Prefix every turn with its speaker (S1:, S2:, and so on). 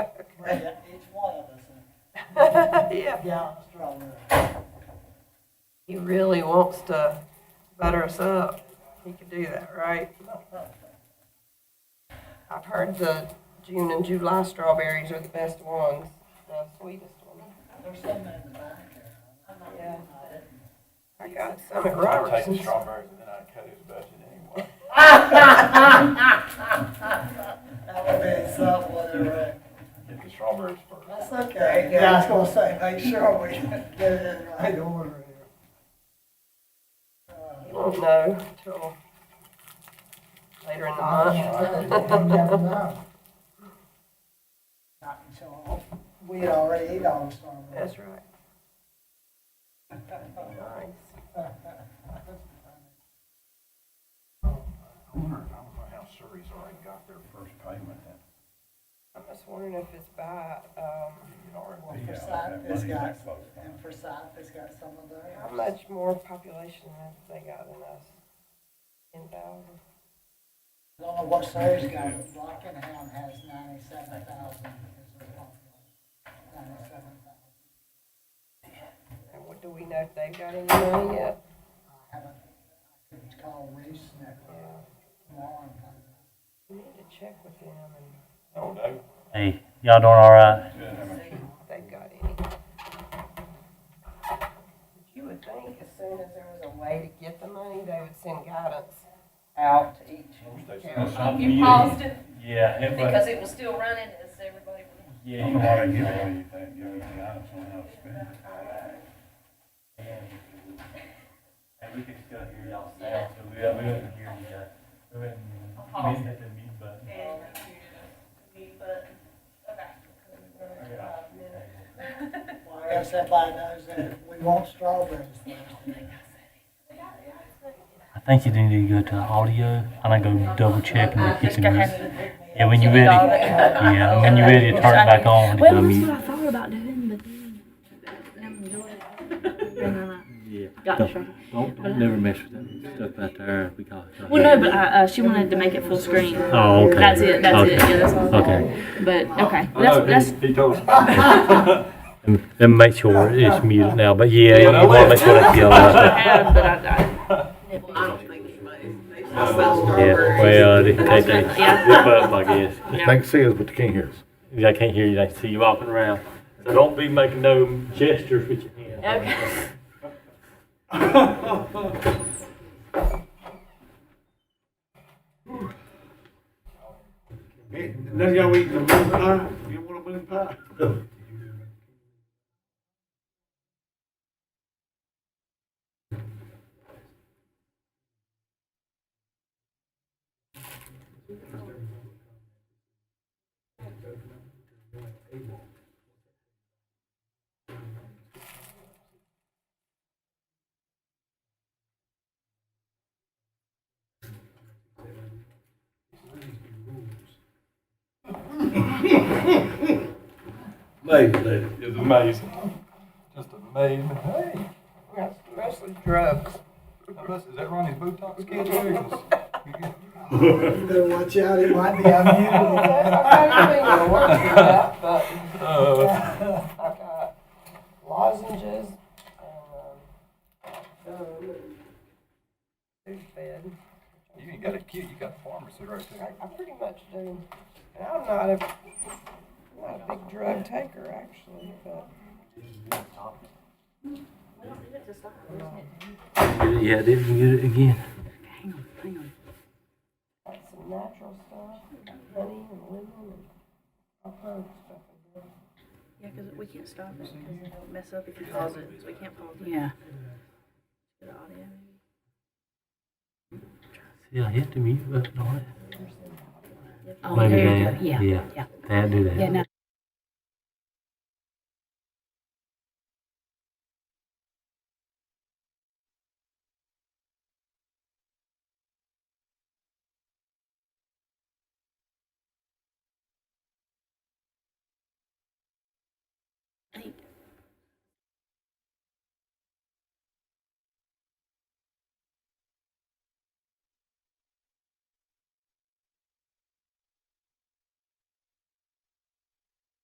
S1: Yeah.
S2: Yeah, stronger.
S1: He really wants to butter us up. He could do that, right? I've heard the June and July strawberries are the best ones, the sweetest ones.
S2: There's some in the back
S1: Yeah.
S2: there.
S1: I got some at Robertson's.
S3: strawberries and then I cut his budget anyway.
S2: That would be something, whatever.
S3: Get the strawberries first.
S2: That's okay. Yeah, I was gonna say, make sure we get it in right Uh, order
S1: You won't know till later in the month.
S2: Not until we had already eat all the strawberries.
S1: That's right. Nice.
S3: I wonder, I don't know how Surrey's already got their first payment then.
S1: I'm just wondering if it's by, um,
S3: It already-
S2: Well,
S4: Yeah,
S2: Forsyth
S4: that
S2: has
S4: money,
S2: got,
S4: that folks got.
S2: and Forsyth has got some of theirs.
S1: how much more population have they got than us? Ten thousand?
S2: I don't know what Surrey's got, but Rockingham has ninety-seven thousand is their population. Ninety-seven thousand.
S1: And what, do we know if they've got any money yet?
S2: I haven't, I could call Reese next
S1: Yeah,
S2: tomorrow and find out.
S1: we need to check with them and
S3: No, no,
S5: Hey, y'all doing all right?
S1: see if they've got any. But You would think as soon as there was a way to get the money, they would send guidance out to each
S3: they said
S1: Yeah.
S3: something.
S6: You paused it
S4: Yeah, it was,
S6: because it was still running as everybody was.
S4: yeah,
S7: don't
S4: you
S7: know why
S4: had to
S7: they give
S4: give
S7: away
S4: it.
S7: anything, give away guidance on how to spend it.
S4: Hey, we could still hear y'all sound, so we, we wouldn't hear you, uh, we wouldn't
S8: Uh-huh.
S4: miss hit the mute button.
S6: And mute button. Okay.
S2: Well, I guess everybody knows that we want strawberries.
S5: I think you need to go to audio, and I go double check
S8: Uh,
S5: and look at the music. Yeah, when you're ready, yeah, when you're ready to turn it back on, to go
S8: Well, that's what
S5: mute.
S8: I thought about doing, but then never enjoyed it. And I
S9: Yeah.
S8: got
S9: Don't-
S8: distracted.
S9: Don't, don't never mess with that stuff out there. We call it.
S8: Well, no, but I, uh, she wanted to make it full screen.
S9: Oh, okay.
S8: That's it. That's it.
S9: Okay.
S8: Yeah, that's all.
S9: Okay.
S8: But okay,
S9: Oh,
S8: that's that's.
S3: He he told us.
S9: And, and make sure it's muted now. But yeah, you want to make sure that's yellow.
S8: I have, but I, I,
S9: Yeah. Well, they, they, they whip up, I guess.
S8: Yeah.
S7: They can see us, but they can't hear us.
S9: They can't hear you. They can see you walking around. So don't be making no gestures with your hands.
S8: okay.
S7: None of y'all eating a moon pie? You want a moon pie? Amazing.
S3: It's amazing. Just amazing. Hey,
S1: That's mostly drugs.
S3: Russ, is that Ronnie's Botox calculations? You get-
S2: Better watch out, it might be on
S1: I don't know, I don't think it'll work for that, but
S3: Uh,
S1: I've got lozenges and, um, food fed.
S3: You ain't got a kid, you got a pharmacy right
S1: I,
S3: there.
S1: I pretty much do. And I'm not a, I'm not a big drug taker, actually, but.
S9: Yeah, they can mute it again.
S1: like some natural stuff, honey and lemon and all kinds of stuff.
S6: Yeah, because we can't stop it because it'll mess up if you pause it. So we can't pause it.
S8: Yeah.
S6: Good audio.
S9: Yeah, hit the mute button on it.
S8: Oh,
S9: Maybe
S8: there you go.
S9: that,
S8: Yeah.
S9: yeah.
S8: Yeah.
S9: That do that.
S8: Yeah. No. I think